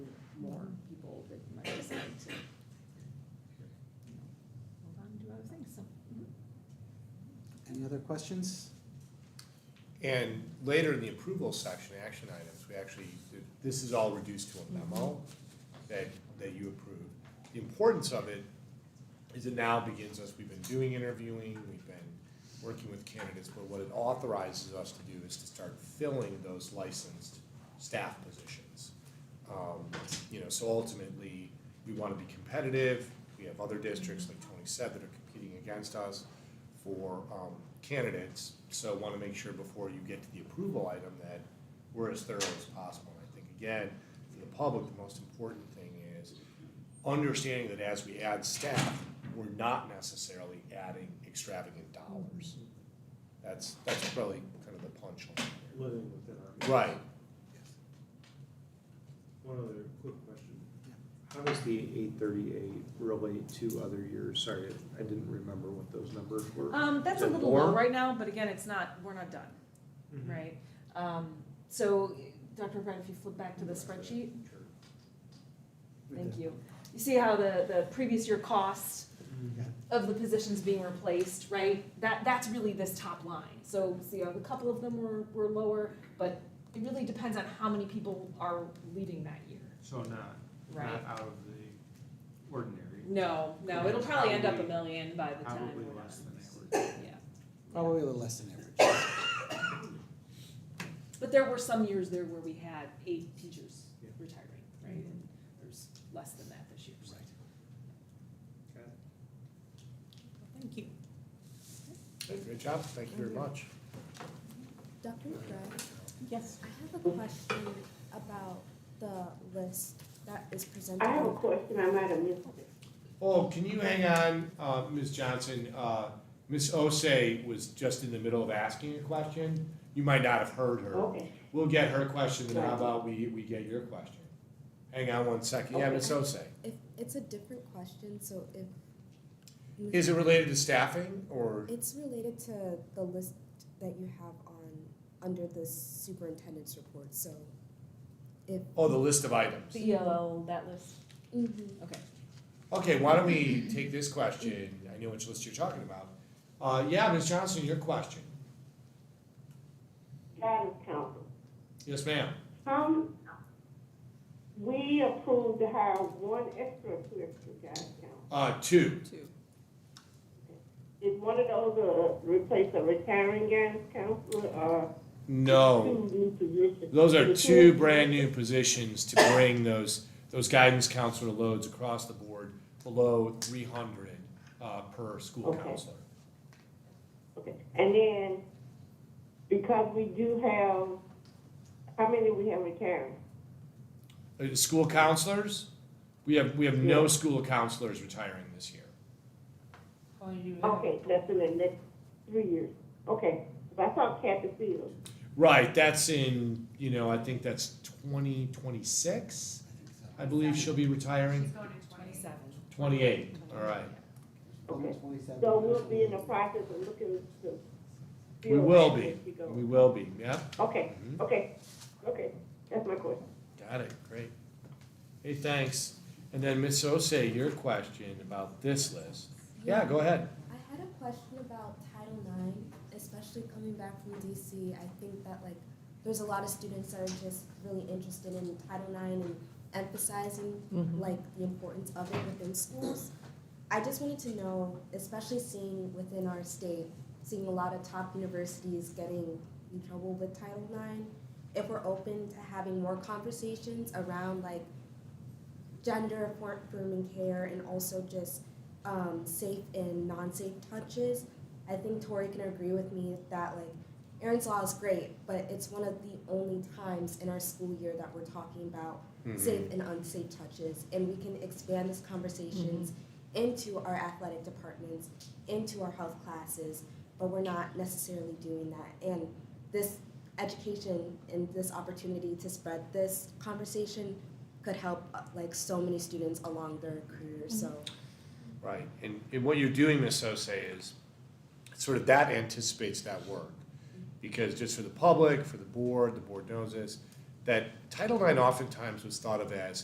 Other questions? And later in the approval section, action items, we actually, this is all reduced to a memo that, that you approve. The importance of it is it now begins us, we've been doing interviewing, we've been working with candidates, but what it authorizes us to do is to start filling those licensed staff positions. Um, you know, so ultimately, we wanna be competitive, we have other districts, like Tony said, that are competing against us for, um, candidates, so wanna make sure before you get to the approval item that we're as thorough as possible. And I think, again, for the public, the most important thing is understanding that as we add staff, we're not necessarily adding extravagant dollars. That's, that's probably kind of the punchline. living within our. means. Right, One other quick question. Yeah. How does the eight thirty-eight relate to other years? Sorry, I- I didn't remember what those numbers were. Um, that's a Is it little low more? right now, but again, it's not, we're not done, Mm-hmm. Mm-hmm. right? Um, so, Dr. Brett, if you flip back to the spreadsheet, thank you. You see how the, the previous year cost Yeah. of the positions being replaced, right? That, that's really this top line. So, see, a couple of them were, were lower, but it really depends on how many people are leading that year, So not, right? not out of the ordinary, No, no, it'll probably end up a million by the time. probably we're less done. than average. Yeah. Probably a little less than average. But there were some years there where we had eight teachers Yeah. retiring, right? And there's less than that this year, so. Right. Thank you. great job, thank you very much. Dr. McBride, Yes. I have a question about the list that is presented. I have a question, I might have missed it. Oh, can you hang on, uh, Ms. Johnson? Uh, Ms. Osei was just in the middle of asking a question. You might not have heard her. Okay, We'll get her question, then how about we, we get your question? Hang on one second. Yeah, Ms. Osei. If, it's a different question, so if. Is it related to staffing or? It's related to the list that you have on, under the superintendent's report, so. Oh, the list of items. The ELL, that list, Mm-hmm. okay. Okay, why don't we take this question? I know which list you're talking about. Uh, yeah, Ms. Johnson, your question. guidance council. Yes, ma'am. Um, we approved to hire one extra person, guidance council. Uh, two. Two. Is one of those, uh, replace a retiring guidance counselor or No. two new positions? Oh. Those are two brand new positions to bring those, those guidance counselor loads across the board below three hundred, uh, per school Okay. counselor. Okay, and then, because we do have, how many we have retiring? Uh, the school counselors, we have, we have no school counselors retiring this year. Okay, that's in the next three years, okay, but I saw Kathy Fields, Right, that's in, you know, I think that's twenty twenty-six, I believe she'll be retiring. going to twenty-seven. 28, all right. okay, so we'll be in the process of looking to. We will fill be. as she goes. We will be, yeah, Okay, Mhm. okay, okay, that's my question. got it, great. Hey, thanks. And then Ms. Osei, your question about this list. Yeah, go ahead. I had a question about Title IX, especially coming back from DC. I think that like there's a lot of students that are just really interested in Title IX and emphasizing like the importance of it within schools. I just wanted to know, especially seeing within our state, seeing a lot of top universities getting in trouble with Title IX, if we're open to having more conversations around like gender affirming care and also just um, safe and non-safe touches. I think Tori can agree with me that like Aaron's Law is great, but it's one of the only times in our school year that we're talking about Mm-hmm. safe and unsafe touches, and we can expand these conversations into our athletic departments, into our health classes, but we're not necessarily doing that. And this education and this opportunity to spread this conversation could help uh, like so many students along their career. So. Right, and, and what you're doing, Ms. Osei, is sort of that anticipates that work. Because just for the public, for the board, the board knows this, that Title IX oftentimes was thought of as